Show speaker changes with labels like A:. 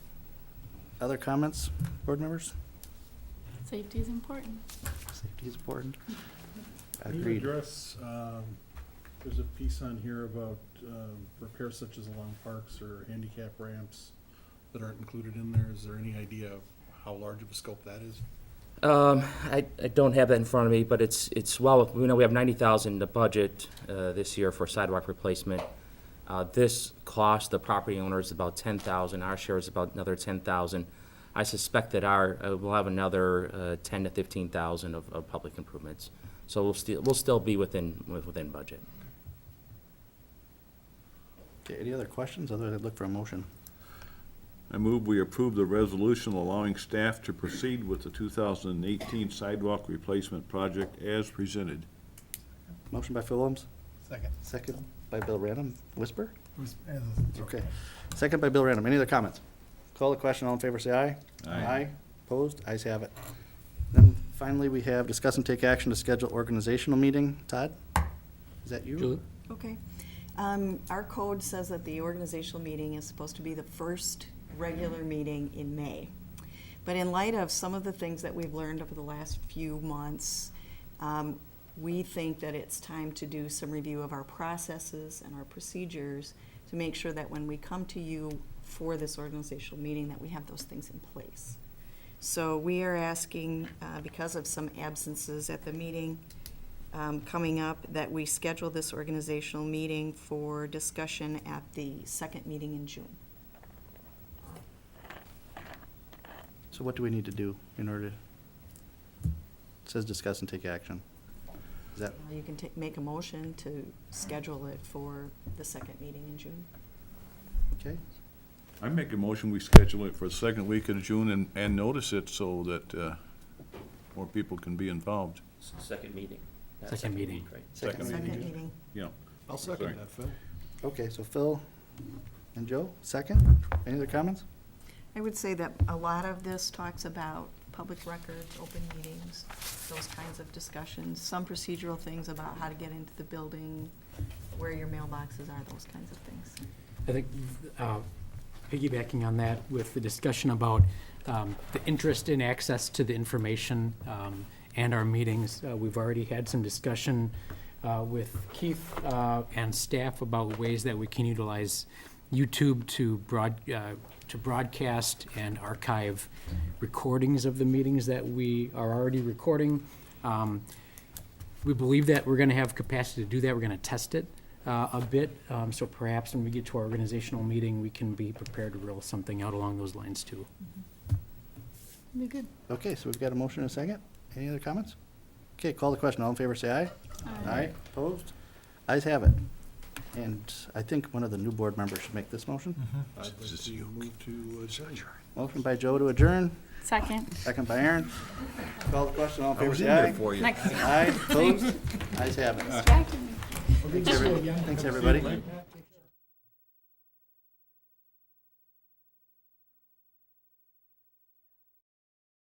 A: Other comments, board members?
B: Safety is important.
A: Safety is important.
C: Can you
A: Agreed.
C: address, um, there's a piece on here about um, repairs such as along parks or handicap ramps that aren't included in there. Is there any idea of how large of a scope that is?
D: Um, I, I don't have that in front of me, but it's, it's well, we know we have ninety thousand in the budget, uh, this year for sidewalk replacement. Uh, this cost, the property owner is about ten thousand, our share is about another ten thousand. I suspect that our, uh, we'll have another, uh, ten to fifteen thousand of, of public improvements. So we'll still, we'll still be within, within budget.
A: Okay, any other questions? Other, I'd look for a motion.
E: I move we approve the resolution allowing staff to proceed with the 2018 sidewalk replacement project as presented.
A: Motion by Phil Williams,
F: Second.
A: second by Bill Random. Whisper?
F: Who's- eh,
A: Okay. Second by Bill Random. Any other comments? Call the question. All in favor, say aye.
E: Aye.
A: Opposed? Ayes have it. Then finally, we have discuss and take action to schedule organizational meeting. Todd? Is that you?
D: Julie?
G: Okay. Um, Our code says that the organizational meeting is supposed to be the first regular meeting in May. But in light of some of the things that we've learned over the last few months, um, we think that it's time to do some review of our processes and our procedures to make sure that when we come to you for this organizational meeting, that we have those things in place. So we are asking, uh, because of some absences at the meeting, um, coming up that we schedule this organizational meeting for discussion at the second meeting in June.
A: So what do we need to do in order to? It says discuss and take action. Is that,
G: Uh, You can ta- make a motion to schedule it for the second meeting in June.
A: okay?
E: I make a motion, we schedule it for the second week of June and, and notice it so that uh, more people can be involved.
D: Second meeting.
F: Second meeting. week,
D: Right.
E: Second meeting.
G: Second meeting.
E: Yeah.
C: I'll
E: Sorry.
C: second that, Phil.
A: Okay, so Phil and Joe, second. Any other comments?
G: I would say that a lot of this talks about public records, open meetings, those kinds of discussions, some procedural things about how to get into the building, where your mailboxes are, those kinds of things.
F: I think uh, piggybacking on that with the discussion about um, the interest in access to the information um, and our meetings, uh, we've already had some discussion uh, with Keith uh, and staff about ways that we can utilize YouTube to broad, uh, to broadcast and archive recordings of the meetings that we are already recording. Um, we believe that we're going to have capacity to do that. We're going to test it uh, a bit. Um, So perhaps when we get to our organizational meeting, we can be prepared to roll something out along those lines too.
B: Be good.
A: Okay, so we've got a motion and a second. Any other comments? Okay, call the question. All in favor, say aye. Aye. Opposed? Ayes have it. And I think one of the new board members should make this motion.
E: Mm-hmm.
C: I'd like to move to adjourn.
A: Motion by Joe to adjourn,
B: Second.
A: second by Aaron. Call the question. All in
E: I
A: favor,
E: was in
A: say
E: there
A: aye.
E: for you.
B: Next.
A: Aye. Opposed? Ayes have it.
B: Distracted me.
A: Thanks, every- Thanks, everybody.